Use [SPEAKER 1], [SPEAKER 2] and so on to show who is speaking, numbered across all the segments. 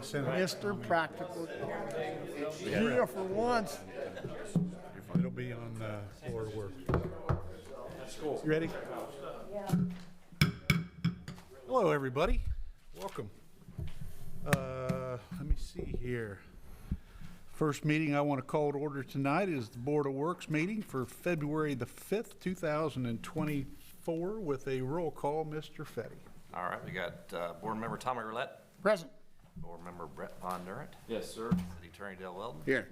[SPEAKER 1] Senate.
[SPEAKER 2] Mr. Practical. Here for once.
[SPEAKER 1] It'll be on uh, Lord Work. You ready? Hello, everybody. Welcome. Uh, Let me see here. First meeting I want to call to order tonight is the Board of Works meeting for February the 5th, 2024, with a roll call, Mr. Fetty.
[SPEAKER 3] All right, we got uh, Board Member Tommy Roulette,
[SPEAKER 2] Present.
[SPEAKER 3] Board Member Brett Von Durant,
[SPEAKER 4] Yes, sir.
[SPEAKER 3] City Attorney Dale Weldon,
[SPEAKER 2] Here.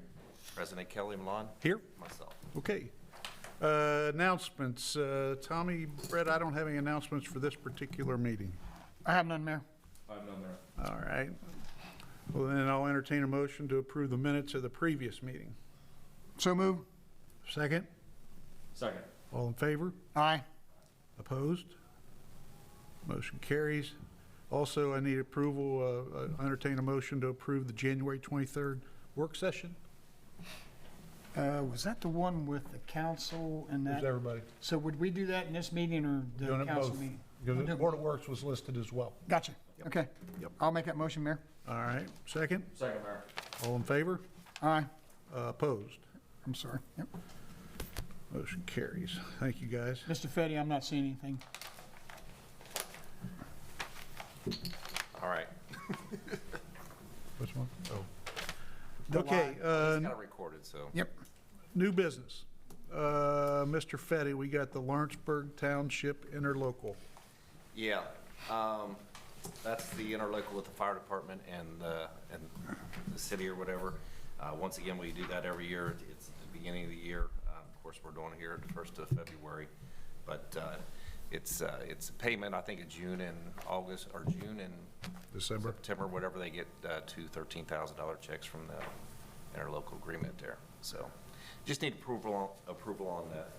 [SPEAKER 3] President Kelly Malone,
[SPEAKER 1] Here?
[SPEAKER 3] myself.
[SPEAKER 1] Okay. Uh, Announcements. Uh, Tommy, Brett, I don't have any announcements for this particular meeting.
[SPEAKER 2] I have none, Mayor.
[SPEAKER 4] I have none there.
[SPEAKER 1] All right. Well, then I'll entertain a motion to approve the minutes of the previous meeting.
[SPEAKER 2] So move.
[SPEAKER 1] Second?
[SPEAKER 4] Second.
[SPEAKER 1] All in favor?
[SPEAKER 2] Aye.
[SPEAKER 1] Opposed? Motion carries. Also, I need approval, uh, uh, entertain a motion to approve the January 23rd work session.
[SPEAKER 2] Uh, was that the one with the council and
[SPEAKER 1] Who's
[SPEAKER 2] that?
[SPEAKER 1] everybody?
[SPEAKER 2] So would we do that in this meeting or
[SPEAKER 1] Doing
[SPEAKER 2] the
[SPEAKER 1] it
[SPEAKER 2] council
[SPEAKER 1] both.
[SPEAKER 2] meeting?
[SPEAKER 1] Because the Board of Works was listed as well.
[SPEAKER 2] Gotcha. Okay.
[SPEAKER 1] Yep.
[SPEAKER 2] I'll make that motion, Mayor.
[SPEAKER 1] All right, second?
[SPEAKER 4] Second, Mayor.
[SPEAKER 1] All in favor?
[SPEAKER 2] Aye.
[SPEAKER 1] Uh, Opposed?
[SPEAKER 2] I'm sorry. Yep.
[SPEAKER 1] Motion carries. Thank you, guys.
[SPEAKER 2] Mr. Fetty, I'm not seeing anything.
[SPEAKER 3] All right,
[SPEAKER 1] Which one? Oh.
[SPEAKER 2] The
[SPEAKER 1] Okay, uh,
[SPEAKER 3] it's kind of recorded, so.
[SPEAKER 2] Yep.
[SPEAKER 1] New business. Uh, Mr. Fetty, we got the Lawrenceburg Township Interlocal.
[SPEAKER 3] Yeah, um, that's the interlocal with the fire department and, uh, and the city or whatever. Uh, once again, we do that every year. It's the beginning of the year. Uh, of course, we're doing it here the first of February. But, uh, it's, uh, it's a payment, I think, in June and August, or June and
[SPEAKER 1] December.
[SPEAKER 3] September, whatever they get, uh, two $13,000 checks from the interlocal agreement there. So just need approval, on- approval on that.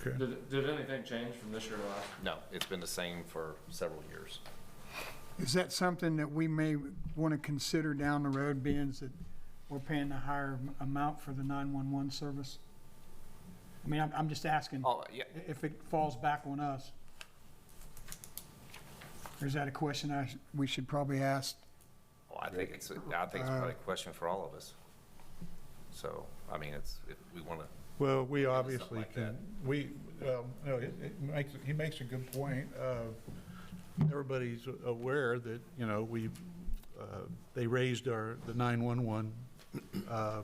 [SPEAKER 1] Okay.
[SPEAKER 4] Did, did anything change from this year to last?
[SPEAKER 3] No, it's been the same for several years.
[SPEAKER 2] Is that something that we may want to consider down the road, being that we're paying a higher am- amount for the 911 service? I mean, I'm, I'm just asking i-
[SPEAKER 3] Oh, yeah,
[SPEAKER 2] if it falls back on us. Or is that a question I, sh- we should probably ask?
[SPEAKER 3] well, Oh, I think it's, I think it's probably a question for all of us. So, I mean, it's, if we want to,
[SPEAKER 1] Well, we
[SPEAKER 3] something
[SPEAKER 1] obviously
[SPEAKER 3] like
[SPEAKER 1] can, we, well, no, it it makes, he makes a good point. Uh, Everybody's aware that, you know, we, uh, they raised our, the 911 uh,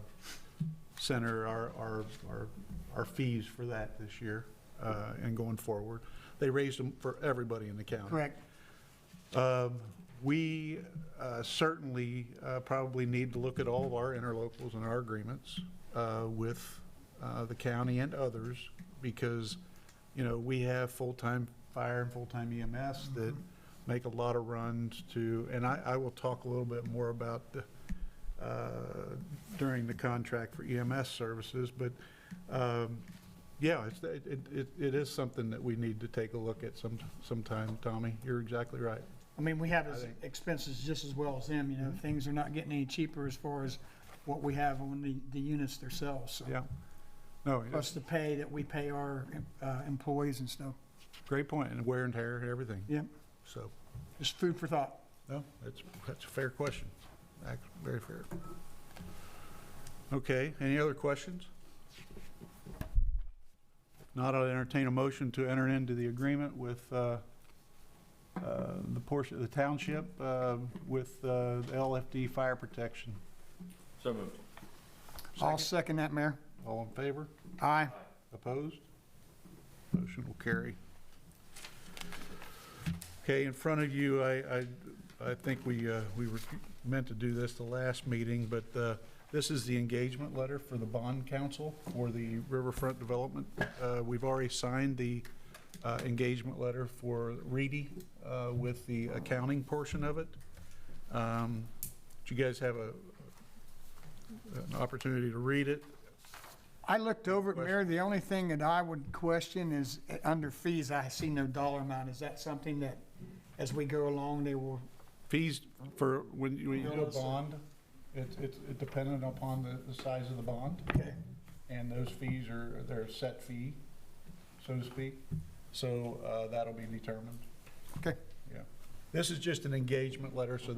[SPEAKER 1] center, our, our, our- our fees for that this year uh, and going forward. They raised them for everybody in the county.
[SPEAKER 2] Correct.
[SPEAKER 1] Um, We uh, certainly uh, probably need to look at all of our interlocals and our agreements uh, with uh, the county and others, because, you know, we have full-time fire and full-time EMS that make a lot of runs to, and I, I will talk a little bit more about the, uh, during the contract for EMS services, but, um, yeah, it's, it, it- it, it is something that we need to take a look at some, sometime, Tommy. You're exactly right.
[SPEAKER 2] I Mm-hmm. mean, we have as- expenses just as well as them, you know, things are not getting any cheaper as far as what we have on the, the units themselves, so.
[SPEAKER 1] Yeah. No,
[SPEAKER 2] Plus
[SPEAKER 1] it's
[SPEAKER 2] the pay that we pay our uh, employees and stuff.
[SPEAKER 1] a great point, and wear and tear and everything.
[SPEAKER 2] Yep,
[SPEAKER 1] So,
[SPEAKER 2] just food for thought.
[SPEAKER 1] no, that's, that's a fair question. Ac- Very fair. Okay, any other questions? If Not, I'll entertain a motion to enter into the agreement with uh, uh, the portion, the township uh, with uh, the LFD Fire Protection.
[SPEAKER 4] So moved.
[SPEAKER 2] I'll second that, Mayor.
[SPEAKER 1] All in favor?
[SPEAKER 2] Aye.
[SPEAKER 1] Opposed? Motion will carry. Okay, in front of you, I, I, I think we, uh, we were meant to do this the last meeting, but, uh, this is the engagement letter for the bond council for the riverfront development. Uh, we've already signed the, uh, engagement letter for Reedy, uh, with the accounting portion of it. Um, did you guys have a, an opportunity to read it?
[SPEAKER 2] I looked over it, Mayor, the only thing that I would question is, uh, under fees, I see no dollar amount. Is that something that, as we go along, they will,
[SPEAKER 1] Fees for, when you, when you do a
[SPEAKER 2] Bills.
[SPEAKER 1] bond, it's, it's it dependent upon the, the size of the bond,
[SPEAKER 2] okay,
[SPEAKER 1] and those fees are, they're a set fee, so to speak. So, uh, that'll be determined,
[SPEAKER 2] okay.
[SPEAKER 1] yeah. This is just an engagement letter, so